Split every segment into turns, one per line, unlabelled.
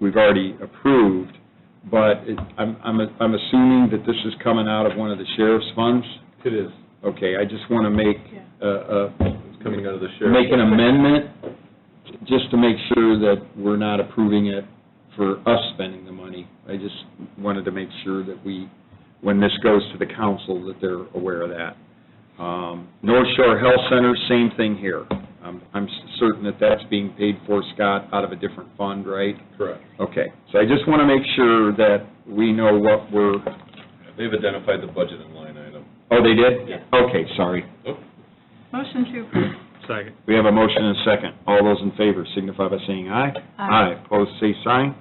we've already approved, but it- I'm, I'm, I'm assuming that this is coming out of one of the sheriff's funds?
It is.
Okay, I just want to make, uh, uh,
It's coming out of the sheriff.
make an amendment, just to make sure that we're not approving it for us spending the money. I just wanted to make sure that we, when this goes to the council, that they're aware of that. Um, North Shore Health Center, same thing here. I'm, I'm certain that that's being paid for, Scott, out of a different fund, right?
Correct.
Okay, so I just want to make sure that we know what we're,
They've identified the budget and line item.
oh, they did?
Yeah.
Okay, sorry.
Oh,
Motion to approve.
Second.
We have a motion and a second. All those in favor signify by saying aye.
Aye.
Opposed, say sign.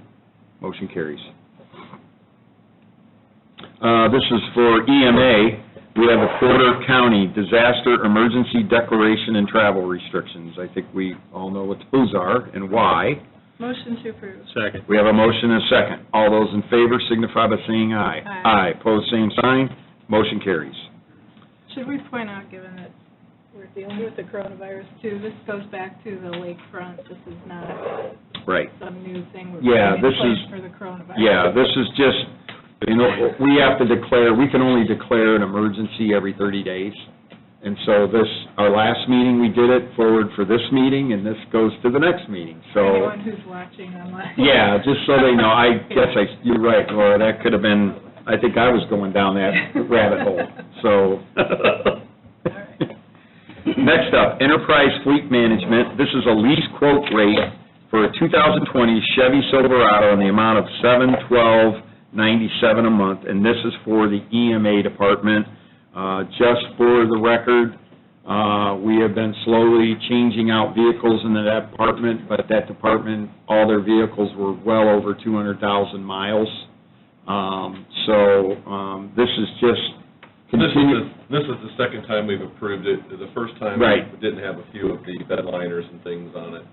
Motion carries. Uh, This is for EMA. We have a Porter County Disaster Emergency Declaration and Travel Restrictions. I think we all know what those are and why.
Motion to approve.
Second.
We have a motion and a second. All those in favor signify by saying aye.
Aye.
Aye. Opposed, same sign. Motion carries.
Should we point out, given that we're dealing with the coronavirus too, this goes back to the lakefront. This is not
Right.
some new thing we're
Yeah,
putting in
this
place
is-
for the coronavirus.
Yeah, this is just, you know, we have to declare, we can only declare an emergency every 30 days. And so this, our last meeting, we did it forward for this meeting, and this goes to the next meeting, so.
For anyone who's watching online.
Yeah, just so they know, I guess I, you're right, Laura, that could have been, I think I was going down that rabbit hole, so. Next up, Enterprise Fleet Management, this is a lease quote rate for a 2020 Chevy Silverado in the amount of seven twelve ninety-seven a month, and this is for the EMA department. Uh, Just for the record, uh, we have been slowly changing out vehicles in that department, but that department, all their vehicles were well over 200,000 miles. Um, So um, this is just
This is,
continue...
the- this is the second time we've approved it. The first time.
Right.
We didn't have a few of the bedliners and things on it.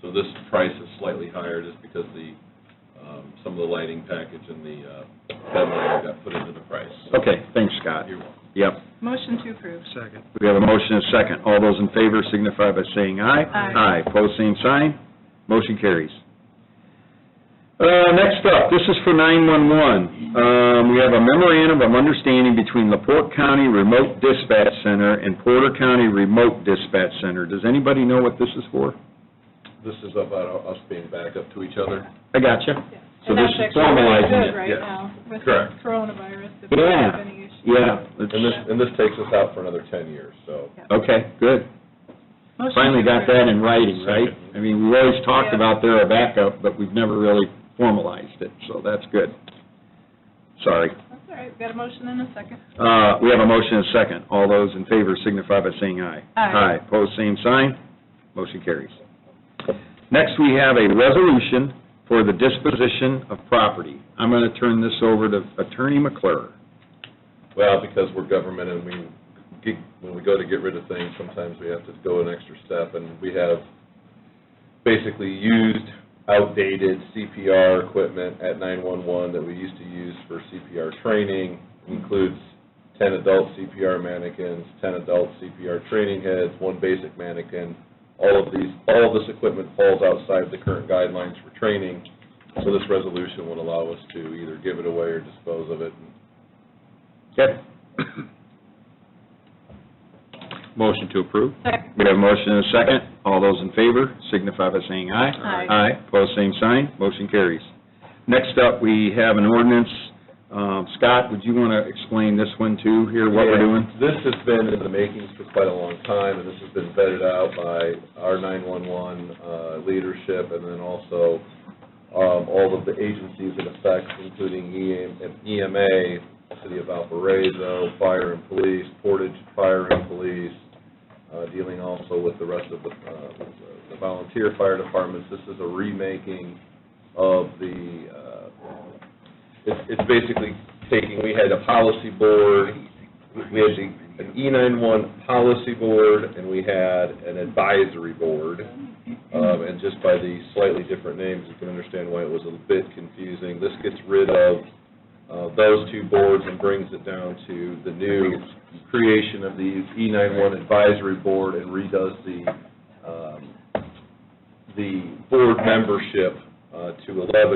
So this price is slightly higher just because the, um, some of the lighting package and the uh, bedliner got put into the price. So
Okay, thanks, Scott.
You're welcome.
Yep.
Motion to approve.
Second.
We have a motion and a second. All those in favor signify by saying aye.
Aye.
Aye, pose same sign. Motion carries. Uh, Next up, this is for 911. Um, We have a memorandum of understanding between LaPorte County Remote Dispatch Center and Porter County Remote Dispatch Center. Does anybody know what this is for?
This is about us being back up to each other.
I gotcha.
Yeah.
So
And
this
that's
is
actually really
formalizing
good
it,
right
yes.
now with the
Correct.
coronavirus. If we
Yeah.
have any issues.
Yeah. it's-
And this, and this takes us out for another 10 years, so.
Okay, good.
Motion
Finally
to
got
approve.
that in writing, right? I mean, we always talked
Yeah.
about they're a backup, but we've never really formalized it, so that's good. Sorry.
That's all right. We've got a motion and a second.
Uh, we have a motion and a second. All those in favor signify by saying aye.
Aye.
Aye, pose same sign. Motion carries. Next, we have a resolution for the disposition of property. I'm going to turn this over to Attorney McClure.
Well, because we're government and we, get- when we go to get rid of things, sometimes we have to go an extra step, and we have basically used outdated CPR equipment at 911 that we used to use for CPR training, includes 10 adult CPR mannequins, 10 adult CPR training heads, one basic mannequin. All of these, all of this equipment falls outside the current guidelines for training, so this resolution would allow us to either give it away or dispose of it and
Okay.
Motion to approve.
Second.
We have a motion and a second. All those in favor signify by saying aye.
Aye.
Aye, pose same sign, motion carries. Next up, we have an ordinance. Um, Scott, would you want to explain this one too, here, what we're doing?
This has been in the makings for quite a long time, and this has been vetted out by our 911 uh, leadership, and then also um, all of the agencies in effect, including E EM EMA, City of Valparaiso, Fire and Police, Portage Fire and Police, uh, dealing also with the rest of the uh, the volunteer fire departments. This is a remaking of the, uh, it's it's basically taking, we had a policy board, we had the- an E91 policy board, and we had an advisory board. Um, And just by the slightly different names, you can understand why it was a bit confusing. This gets rid of uh, those two boards and brings it down to the new creation of the E91 advisory board and redoes the, um, the board membership uh, to 11